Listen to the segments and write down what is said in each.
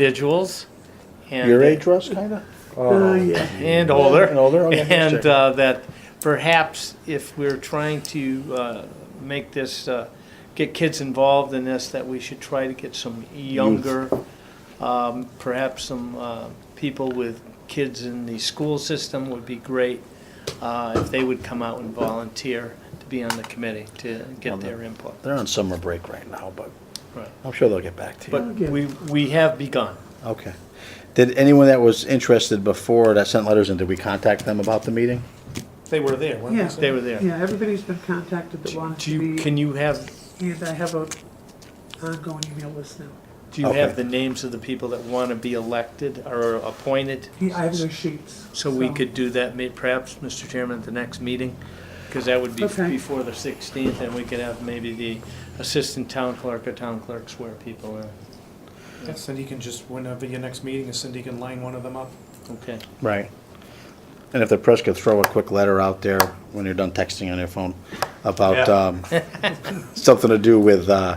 individuals. and- uh, Your age, Russ, kinda? Oh, and older. and older, okay, yes, And sir. uh, that perhaps if we're trying to uh, make this, uh, get kids involved in this, that we should try to get some younger, um, perhaps some uh, people with kids in the school system would be great uh, if they would come out and volunteer to be on the committee to get their input. They're on summer break right now, but Right. I'm sure they'll get back to you. But we, we have begun. Okay. Did anyone that was interested before that sent letters in, did we contact them about the meeting? They were there, Yeah. weren't they? They were there. Yeah, everybody's been contacted that wants Do to you, be, can you have and I have a ongoing email list now. Do you Okay. have the names of the people that want to be elected or appointed? Yeah, I have their sheets. So we could do that may- perhaps, Mr. Chairman, at the next meeting? Because that would be Okay. before the 16th, and we could have maybe the assistant town clerk or town clerk swear people uh, in. Yeah, Cindy can just, whenever your next meeting is, Cindy can line one of them up. Okay. Right. And if the press could throw a quick letter out there when you're done texting on your phone about Yeah. um, something to do with, uh,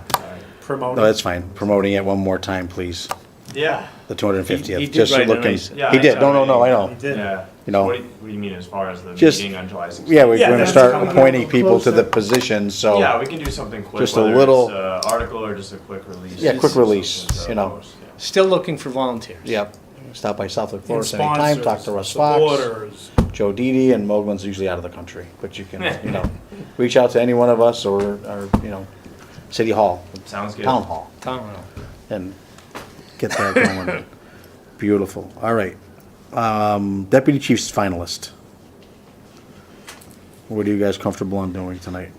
Promote. no, that's fine, promoting it one more time, please. Yeah. The 250th. He- he did Just write a looking- nice- Yeah, He did, I no, no, saw no, I that. know. Yeah. You know. What do you, what do you mean as far as the Just- meeting on July 16th? Yeah, we're Yeah, going to that's start coming up appointing people to the closer. positions, so. Yeah, we can do something quick. Just a whether little- It's a article or just a quick release. Yeah, quick release, Something to you know. post, yeah. Still looking for volunteers. Yep. Stop by Southwick And Florist anytime, talk to sponsors, Russ Fox, Supporters. Joe Didi, and Mogul's usually out of the country, but you can, you know, reach out to any one of us or, or, you know, City Hall, Sounds good. Town Hall, Town hall. and get that going. Beautiful, all right. Um, Deputy Chief's finalist. What are you guys comfortable on doing tonight?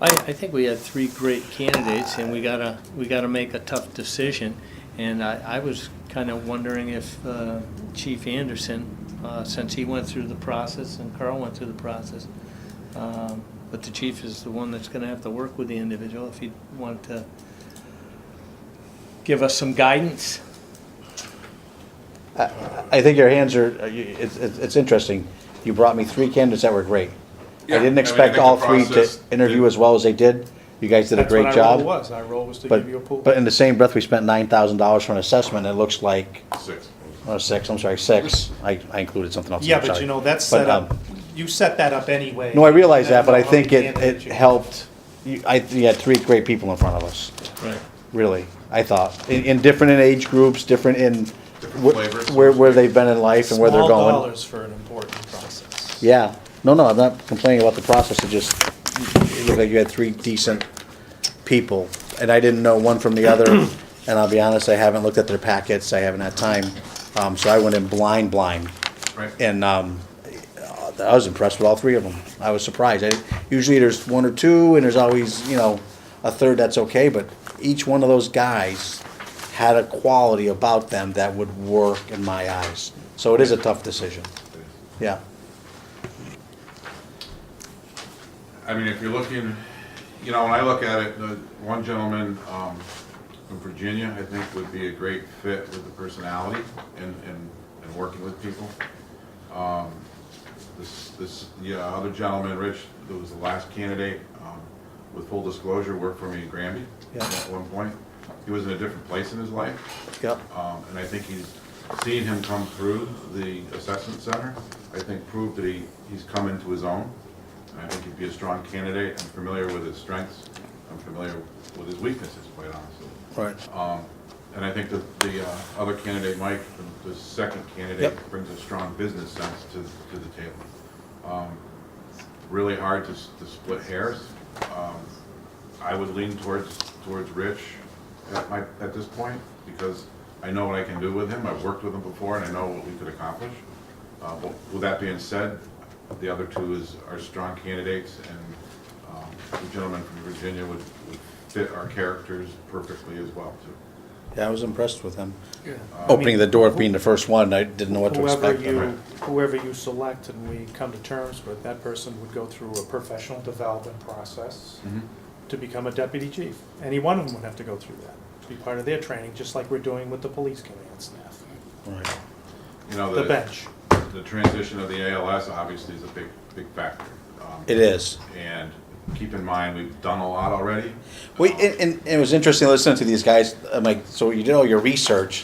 I, I think we had three great candidates, and we gotta, we gotta make a tough decision. And I, I was kinda wondering if uh, Chief Anderson, uh, since he went through the process and Carl went through the process, um, but the chief is the one that's gonna have to work with the individual, if he wanted to give us some guidance. I think your hands are, uh, you- it's, it's it's interesting. You brought me three candidates that were great. I Yeah, didn't and we expect think the all three to process interview did- as well as they did. You guys did a That's what great our role job. was. Our role was to But, give you a pool. but in the same breath, we spent nine thousand dollars for an assessment. It looks like, Six. oh, six, I'm sorry, six. I, I included something else. Yeah, I'm but sorry. you know, that's But, set up, um, you set that up anyway. No, I realize that, but I That's how many think it, it candidates you- helped. You, I, you had three great people in front of us, Right. really, I thought. In, in different in age groups, different in wh- flavors. where, where they've been in life and where they're Small going. dollars for an important process. Yeah, no, no, I'm not complaining about the process, it just, it looked like you had three decent people, and I didn't know one from the other, and I'll be honest, I haven't looked at their packets, I haven't had time, um, so I went in blind, blind. Right. And, um, I was impressed with all three of them, I was surprised, I, usually there's one or two, and there's always, you know, a third that's okay, but each one of those guys had a quality about them that would work in my eyes, so it is a tough decision, yeah. I mean, if you're looking, you know, when I look at it, the one gentleman um, from Virginia, I think, would be a great fit with the personality and, and, and working with people. Um, This, this, yeah, other gentleman, Rich, that was the last candidate, um, with full disclosure, worked for me in Granby Yeah. at one point. He was in a different place in his life. Yep. Um, and I think he's seen him come through the assessment center. I think proved that he, he's come into his own. I think he'd be a strong candidate. I'm familiar with his strengths. I'm familiar with his weaknesses, quite honestly. Right. Um, and I think that the, uh, other candidate, Mike, the- the second candidate, Yep. brings a strong business sense to, to the table. Um, Really hard to, s- to split hairs. Um, I would lean towards, towards Rich at my, at this point, because I know what I can do with him, I've worked with him before, and I know what we could accomplish. Uh, but with that being said, the other two is, are strong candidates, and, um, the gentleman from Virginia would, would fit our characters perfectly as well, too. Yeah, I was impressed with him. Opening the door of being the first one, I didn't know what to Whoever expect. you, right? whoever you select and we come to terms with, that person would go through a professional development process Mm-hmm. to become a deputy chief. Any one of them would have to go through that, be part of their training, just like we're doing with the police command staff, Right. You Oh, know, the bench. the transition of the ALS obviously is a big, big factor. Um, It is. And keep in mind, we've done a lot already. Well, and, and and it was interesting listening to these guys. I'm like, so you did all your research,